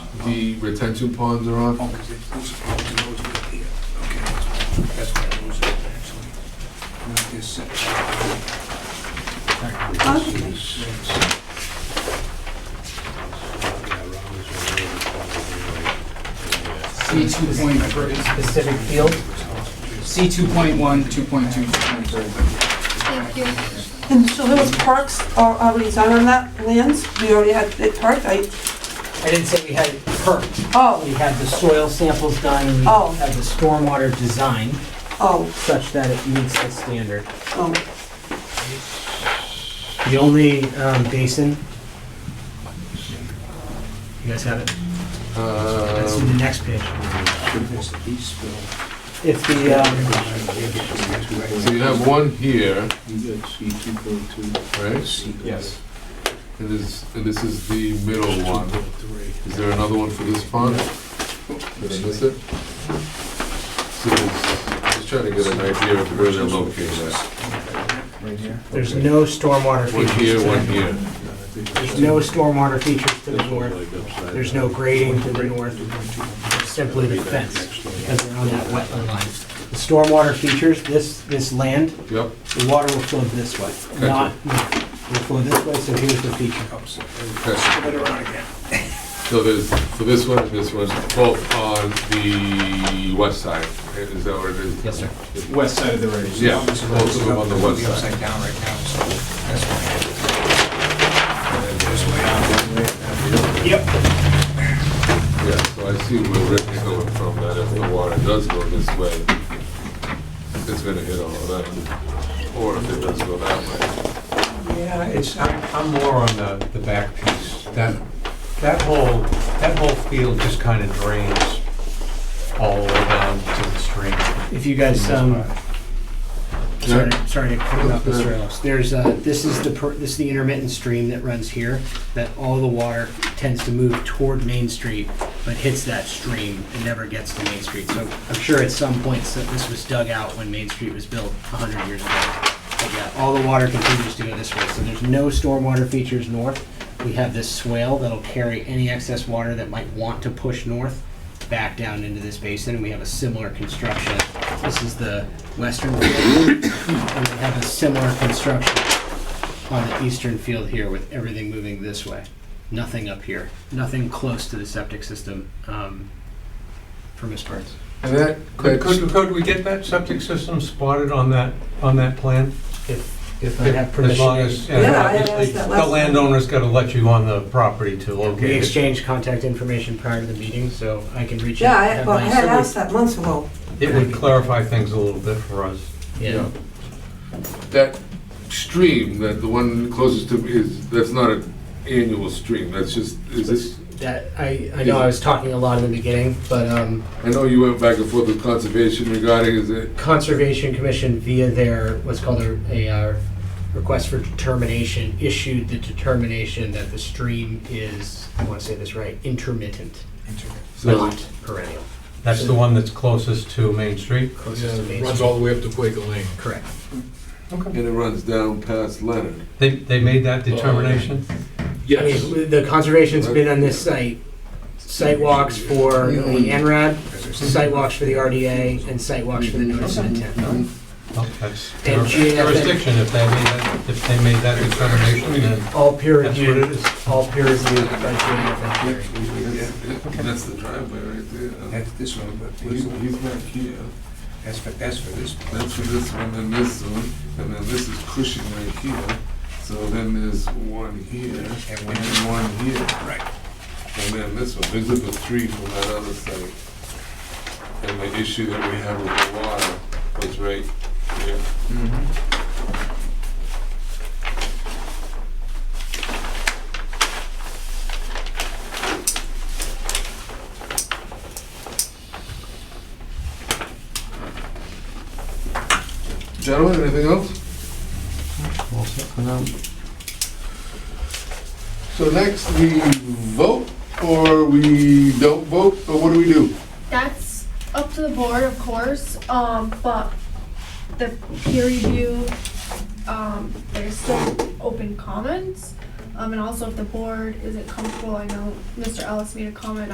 the retention ponds are on. Okay, those are all those right here. Okay, that's why I was, actually. Not this section. C two point three, specific field, C two point one, two point two, two point three. Thank you. And so there was parks are already done on that lands, we already had it parked, I, I didn't say we had it perked, we oh, had the soil samples done, and we Oh. had the stormwater design oh, such that it meets the standard. oh, The only um, basin. You guys have it? That's in the Um, next page. This east spill. It's the, um, So you have one here, You got C two point two. right? Yes. And this, and this is the middle Two one. point three. Is there another one for this pond? Did I miss it? So it's- I'm just trying to get an idea of where they're located at. there's no stormwater One features. here, to one the- here. There's no stormwater features to the north. There's no grading to the north, simply the fence, because they're on that wetland line. The stormwater features, this, this land, Yep, the water will flow this way, not, not- will flow this way, so here's the feature. okay. Put it around again. So there's, for this one and this one, both on the west side. Is that what it is? Yes, sir. West side of the race. Yeah, both of them on the west It's side. upside down right now, so that's why. Yep. Yeah, so I see where Rick is going from, that if the water does go this way, it's gonna hit all of that. Or if it does go that way. Yeah, it's, I'm I'm more on the, the back piece. That, that whole, that whole field just kind of drains all the way down to the stream. If you guys, um, Yeah. Sorry, sorry, I cut it off, Mr. Ellis. There's, uh, this is the, per- this is the intermittent stream that runs here, that all the water tends to move toward Main Street, but hits that stream and never gets to Main Street. So I'm sure at some points that this was dug out when Main Street was built a hundred years ago. But yeah, all the water continues to go this way, so there's no stormwater features north. We have this swale that'll carry any excess water that might want to push north back down into this basin, and we have a similar construction. This is the western field, and we have a similar construction on the eastern field here with everything moving this way. Nothing up here, nothing close to the septic system um, for Miss Burns. And that, Could, could, could we get that septic system spotted on that, on that plan? If, if I have As long permission, as, Yeah, I and asked obviously, that the last- landowner's gotta let you on the property to we locate it. exchanged contact information prior to the meeting, so I can reach yeah, out. I, have well, I my- had asked that months ago. It would clarify things a little bit for us. Yeah. that stream, that the one closest to, is, that's not an annual stream, that's just, is this, That, I, I know I was talking a lot in the beginning, but um, I know you went back and forth with conservation regarding, is it, Conservation Commission via their, what's called a, a uh, request for determination, issued the determination that the stream is, I want to say this right, intermittent, so, not perennial, That's the one that's closest to Main Street? closest to Main Runs Street. all the way up to Quaker Lane. Correct. and it runs down past Leonard. They, they made that determination? I mean, the conservation's been on this site, site walks for the NRAD, site walks for the RDA, and site walks for the notice of intent. Well, Oh, That's their And GFN. jurisdiction, if they made that, if they made that determination, then All peer that's what it reviewed, is. all peer reviewed by GFN hearing. Yeah, That's the driveway right there. that's this one, but He's he's not here, that's for, that's for this. that's for this one, and this one, and then this is Cushing right here, so then there's one here, and And one one- here. Right. And then this one, these are the three from that other site. And the issue that we had with the water was right here. Mm-hmm. Gentlemen, anything else? So next, we vote, or we don't vote, or what do we do? That's up to the board, of course, um, but the peer review, um, there's still open comments. Um, and also if the board isn't comfortable, I know Mr. Ellis made a comment